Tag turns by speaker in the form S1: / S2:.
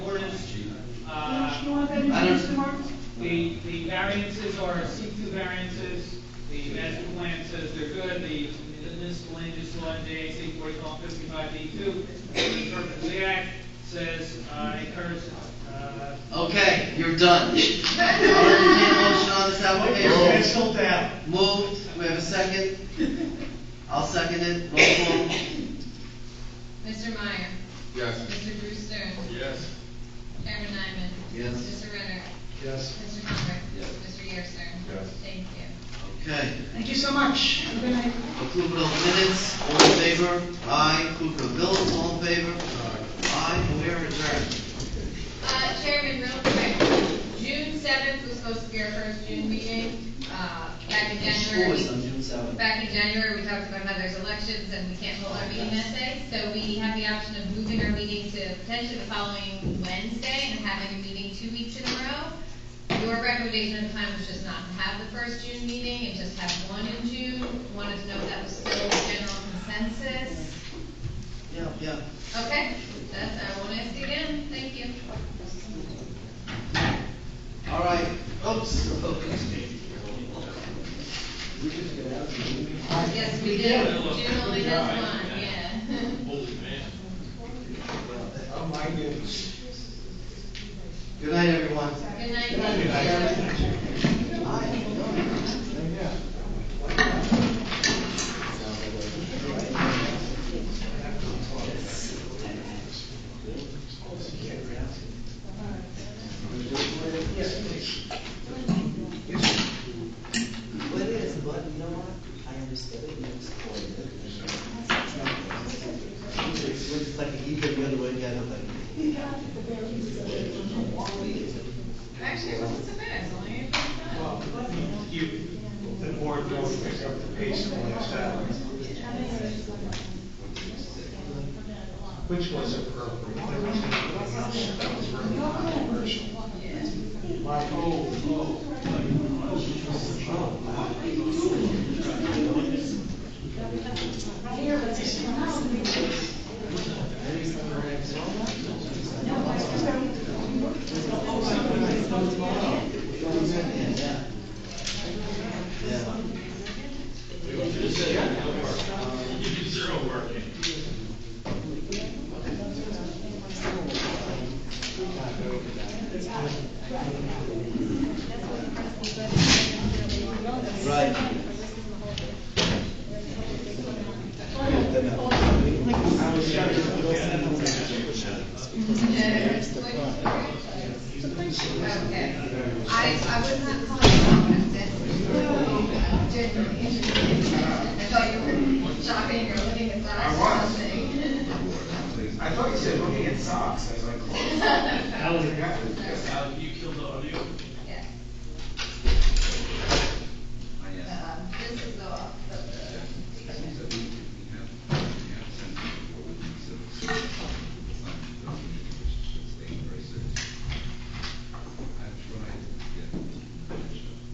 S1: variances are C two variances, the master plan says they're good, the municipal land use law in JAC forty-one fifty-five D two, the interpretive act says, uh, encourage, uh,
S2: Okay, you're done. I'll entertain a motion on this application.
S3: Pencil down.
S2: Moved, we have a second. I'll second it, roll call.
S4: Mr. Meyer.
S5: Yes.
S4: Mr. Brewster.
S5: Yes.
S4: Chairman Nyman.
S2: Yes.
S4: Mr. Ritter.
S3: Yes.
S4: Mr. Conrad.
S2: Yes.
S4: Mr. Yerser.
S5: Yes.
S4: Thank you.
S2: Okay,
S3: Thank you so much. Have a good night.
S2: approval of minutes, all in favor? Aye, approval of bills, all in favor? Aye, we are adjourned.
S4: Uh, Chairman, real quick, June seventh was supposed to be our first June meeting, uh, back in January.
S2: Always on June seventh.
S4: Back in January, we talked about how there's elections and we can't hold our meeting that day, so we have the option of moving our meeting to potentially the following Wednesday and having a meeting two weeks in a row. Your recommendation at the time was just not to have the first June meeting and just have one in June. Wanted to know if that was still the general consensus.
S2: Yeah, yeah.
S4: Okay, that's, I won't ask you again, thank you.
S2: All right, oops, okay.
S4: Yes, we did, June only has one, yeah.
S5: Holy man.
S3: Oh, my goodness.
S2: Good night, everyone.
S4: Good night. thank you.
S6: But it is, but you know what? I understood it, and I supported it. It's just like you go the other way, the other way.
S4: Actually, it wasn't so bad, it's only eight points five.
S3: You, the board will pick up the pace on this hour. Which was appropriate. There was nothing else that was really controversial. My whole, oh,
S2: Yeah.
S5: Um, Zero working.
S2: Right.
S4: Okay. I, I was not calling you out on this. uh, I genuinely interested. I thought you were shopping or looking at
S3: I
S4: socks or
S3: was.
S4: something.
S3: I thought you said looking at socks, I was like, oh.
S4: I
S3: I forgot.
S4: uh,